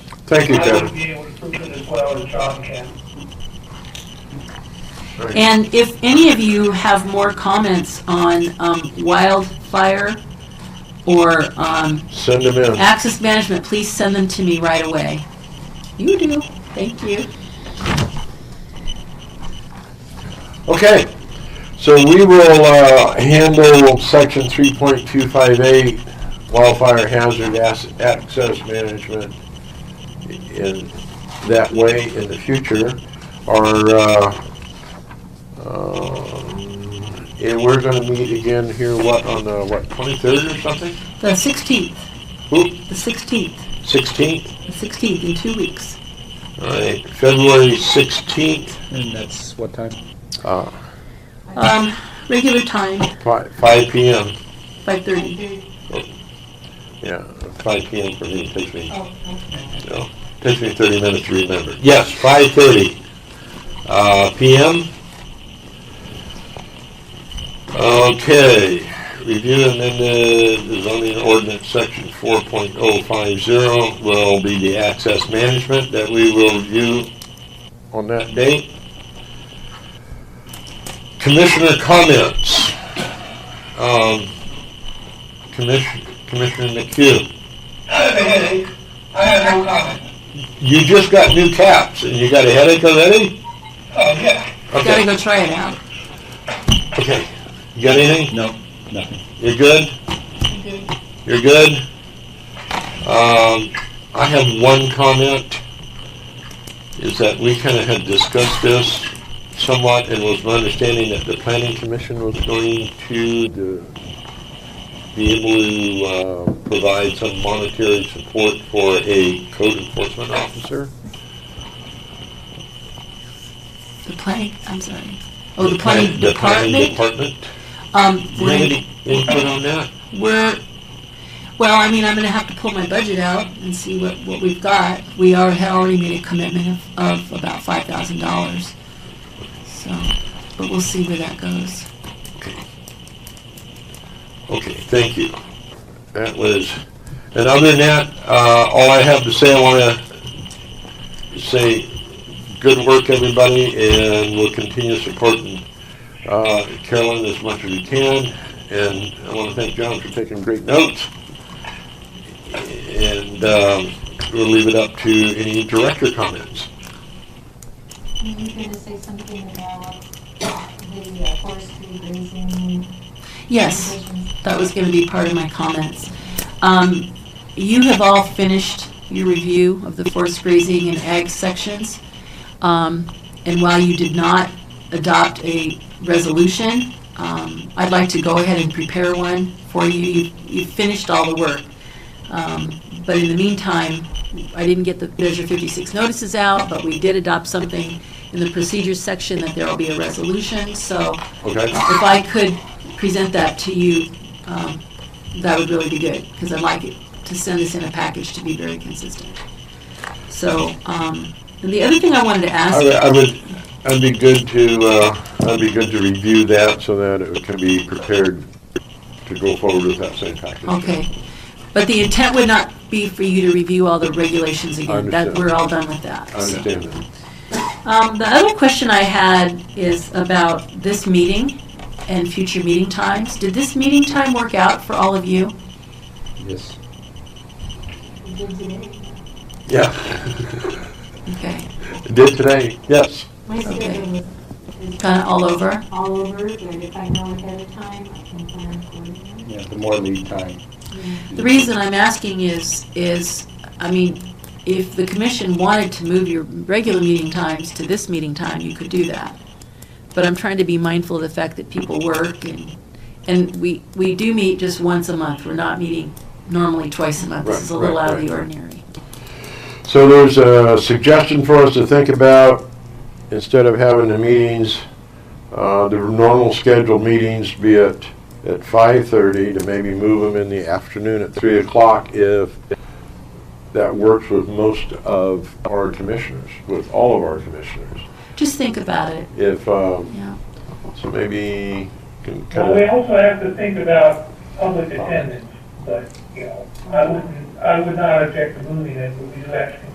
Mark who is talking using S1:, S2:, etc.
S1: Thank you,
S2: I would
S1: Kevin.
S2: be able to prove it as well as John can.
S3: And if any of you have more comments on um, wildfire or um,
S1: Send them in.
S3: access management, please send them to me right away. You do. Thank you.
S1: Okay, so we will uh, handle section 3.258 wildfire hazard ass- access management in that way in the future. Our, uh, um, and we're going to meet again here, what, on the, what, 23rd or something?
S3: The 16th,
S1: Oop,
S3: the 16th,
S1: 16th?
S3: the 16th in two weeks.
S1: All right, February 16th,
S4: And that's what time?
S1: uh,
S3: Um, regular time,
S1: fi- 5 PM.
S3: 5:30.
S1: Yeah, 5 PM for me, it takes me, no, takes me 30 minutes to remember. Yes, 5:30 uh, PM. Okay, review and amend the zoning ordinance section 4.050 will be the access management that we will review on that date. Commissioner comments. Um, Commissioner, Commissioner McHugh.
S2: I have a headache. I have no comment.
S1: You just got new caps and you got a headache already?
S2: Oh, yeah.
S3: Gotta
S1: Okay,
S3: go try it out.
S1: okay. You got anything?
S4: No, nothing.
S1: You're good? You're good? Um, I have one comment, is that we kind of had discussed this somewhat and was my understanding that the planning commission was going to the- be able to, uh, provide some monetary support for a code enforcement officer.
S3: The planning, I'm sorry. Oh, the planning department?
S1: Department.
S3: Um,
S1: Do you have
S3: we're,
S1: any input on that?
S3: we're, well, I mean, I'm gonna have to pull my budget out and see what, what we've got. We are, had already made a commitment of, of about five thousand dollars. So, but we'll see where that goes.
S1: Okay, thank you. That was, and other than that, uh, all I have to say, I wanna say, good work, everybody, and we'll continue supporting, uh, Carolyn as much as we can. And I wanna thank John for taking great notes. And, um, we'll leave it up to any director comments.
S5: You were going to say something about the uh, forestry grazing.
S3: Yes.
S5: provisions.
S3: that was going to be part of my comments. Um, you have all finished your review of the forest grazing and ag sections. Um, and while you did not adopt a resolution, um, I'd like to go ahead and prepare one for you. You, you finished all the work. Um, but in the meantime, I didn't get the Measure 56 notices out, but we did adopt something in the procedures section that there will be a resolution. So
S1: Okay?
S3: if I could present that to you, um, that would really be good, because I'd like it to send this in a package to be very consistent. So, um, and the other thing I wanted to
S1: I
S3: ask,
S1: would- I would, I'd be good to, uh, I'd be good to review that so that it can be prepared to go forward with that same package.
S3: okay, but the intent would not be for you to review all the regulations again, that,
S1: understand.
S3: we're all done with that.
S1: I understand that.
S3: Um, the other question I had is about this meeting and future meeting times. Did this meeting time work out for all of you?
S4: Yes.
S5: We did today.
S1: Yeah.
S3: Okay,
S1: Did today, yes.
S5: My schedule is- is
S3: kinda all over?
S5: all over, but if I know ahead of time, I can plan accordingly.
S4: Yeah, the more lead time.
S3: The reason I'm asking is, is, I mean, if the commission wanted to move your regular meeting times to this meeting time, you could do that. But I'm trying to be mindful of the fact that people work and, and we, we do meet just once a month. We're not meeting normally twice a month. This is a
S1: Right,
S3: little
S1: right,
S3: out of
S1: right,
S3: the
S1: right.
S3: ordinary.
S1: So there's a suggestion for us to think about, instead of having the meetings, uh, the normal scheduled meetings be at, at 5:30, to maybe move them in the afternoon at 3 o'clock if that works with most of our commissioners, with all of our commissioners.
S3: Just think about it,
S1: If, um,
S3: yeah.
S1: so maybe can
S2: Well, we
S1: kind of,
S2: also have to think about public attendance, but, you know, I wouldn't, I would not object to moving it, but we do have to